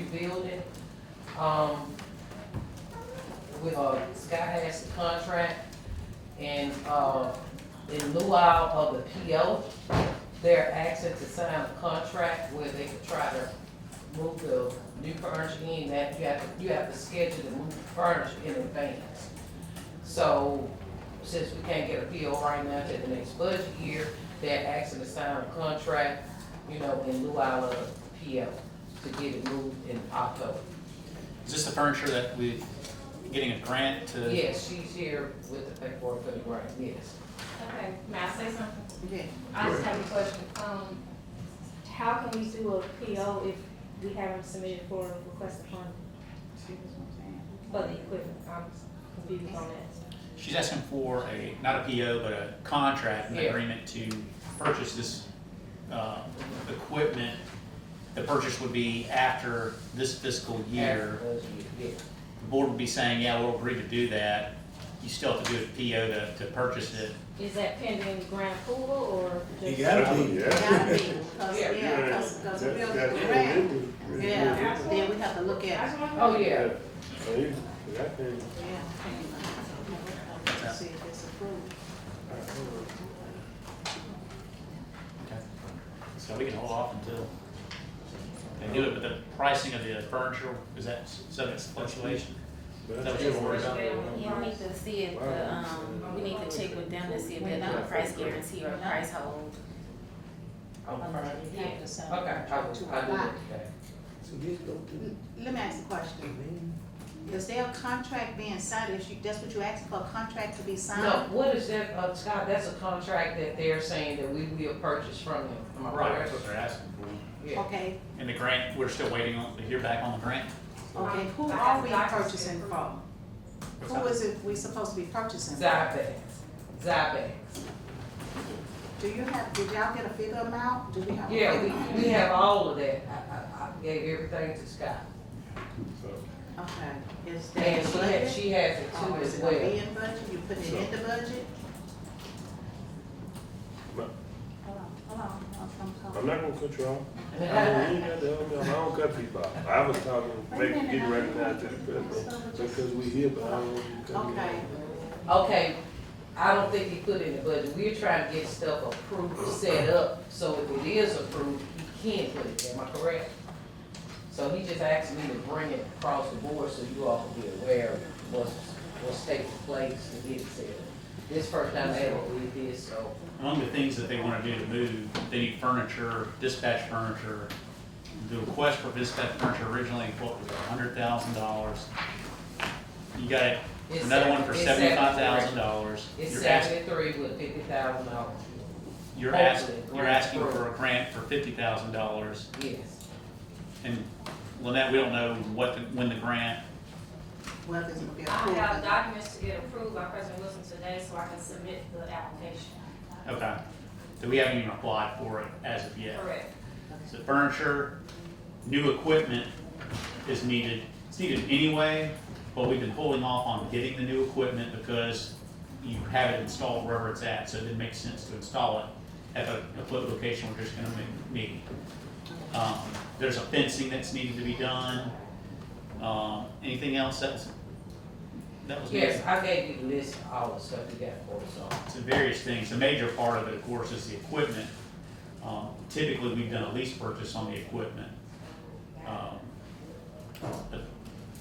building. Um, with, uh, Sky has the contract and, uh, in lieu of the PO, they're asking to sign a contract where they could try to move the new furniture in that you have, to you have to schedule the move furniture in advance. So since we can't get a PO right now to the next budget year, they're asking to sign a contract, you know, in lieu of PO to get it moved in October. Is this the furniture that we, getting a grant to? Yes, she's here with the paperwork for the grant, yes. Okay, may I say something? Yeah. I just have a question. Um, how can we do a PO if we haven't submitted for a request of funding for the equipment? I'm confused on that. She's asking for a, not a PO, but a contract, an Yeah. agreement to purchase this, uh, equipment. The purchase would be after this fiscal year. The board would be saying, yeah, we'll agree to do that. You still have to do a PO to, to purchase it. Is that pending grant approval or just? You gotta be. Gotta be, cause, Yeah. yeah, cause, cause we built the grant, yeah, then we have to look at, it. Oh, yeah, yeah. Yeah. See if it's approved. So we can hold off until they do it, but the pricing of the furniture, is that subject to fluctuation? Is that what you're worried about? Yeah, we need to see if, the, um, we need to check with them to see if they're not a price guarantee or a price hold. I'm fine. Yeah. Okay, I will, I will look at Let me ask a question, is there a contract being signed, if you, that's what you asked for, a contract to be signed? that. No, what is that, uh, Scott, that's a contract that they're saying that we will purchase from them, am I Right, right? that's what they're asking for. Yeah, Okay, And the grant, we're still waiting on, to hear back on the grant? um, okay, who I are have we doctors purchasing approved. from? Who is it we supposed to be purchasing? from? Zybags, Zybags. Do you have, did y'all get a figure amount, do we have? a Yeah, figure we, we have all of that. I, I, I gave everything to Scott. amount? Okay, is that? And she budget? has, she has it too Oh, is as it gonna well. be in budget, you putting it in the budget? Ma- Hold on, hold on, I'm- I'm I'm coming. not gonna cut you off. I don't, you ain't got to help me out. I don't cut people off. I was talking, make, getting recognized to the president, because we here, but I don't want you to cut me off. Okay, Okay, I don't think he put it in the budget. We're trying to get stuff approved, set up, so if it is approved, he can put it there, am I correct? So he just asked me to bring it across the board so you all can be aware of what's, what's taking place to get it set up. This first time I ever did this, so, Among the things that they want to do to move, they need furniture, dispatch furniture. The request for dispatch furniture originally, what was it, hundred thousand dollars? You got It's another one for seven- it's seventy-five thousand dollars. it's You're asking, seventy-three with fifty thousand dollars. you're asking, hopefully, you're grant asking for a grant for fifty thousand dollars. Yes, And Lynette, we don't know what, the- when the grant, well, this will be I have approved. documents to get approved by President Wilson today so I can submit the application. okay. So we haven't even applied for it as of yet. Correct. So furniture, new equipment is needed. It's needed anyway, but we've been holding off on getting the new equipment because you have it installed wherever it's at, so it didn't make sense to install it at a, a float location we're just gonna ma- need. Um, there's a fencing that's needed to be done. Um, anything else that's, that was. needed? yes, I gave you the list of all the stuff we got for us on. to various things. The major part of it, of course, is the equipment. Um, Typically, we've done a lease purchase on the equipment. Um, But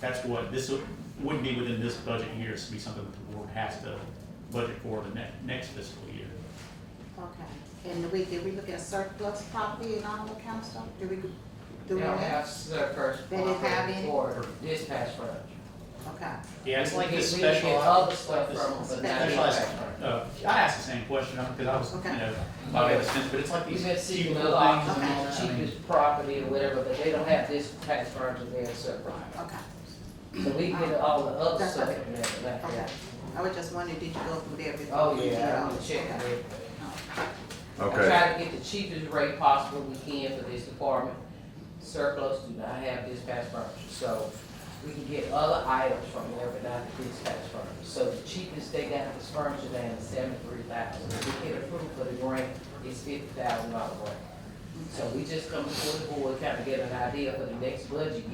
that's what, this would- wouldn't be within this budget year, it's be something that the board has to budget for the ne- next fiscal year. Okay, and we, did we look at surplus property and all that kind of stuff? Did we, do we? They don't know? have surplus They didn't have any? for dispatch furniture. Okay, Yeah, it's like We- this we get special. Other stuff from them, but not Specialized, dispatch furniture. uh, I asked the same question, because I was, you Okay. know, probably have a sense, but it's like We've these been cheap seeking a little lot, things. and all the that. I mean, cheapest property or whatever, but they don't have dispatch furniture there except right. okay, So we get all the other That's stuff okay. from there, but not okay. that. I was just wondering, did you go through there before? Oh, yeah, you I'm did all- gonna check on okay. it. I Okay, try to get the cheapest rate possible we can for this department. Surplus do not have dispatch furniture, so we can get other items from there, but not the dispatch furniture. So the cheapest they got is furniture down to seventy-three thousand. If we get approved for the grant, it's fifty thousand dollar grant. So we just come before the board, kind of get an idea for the next budget year.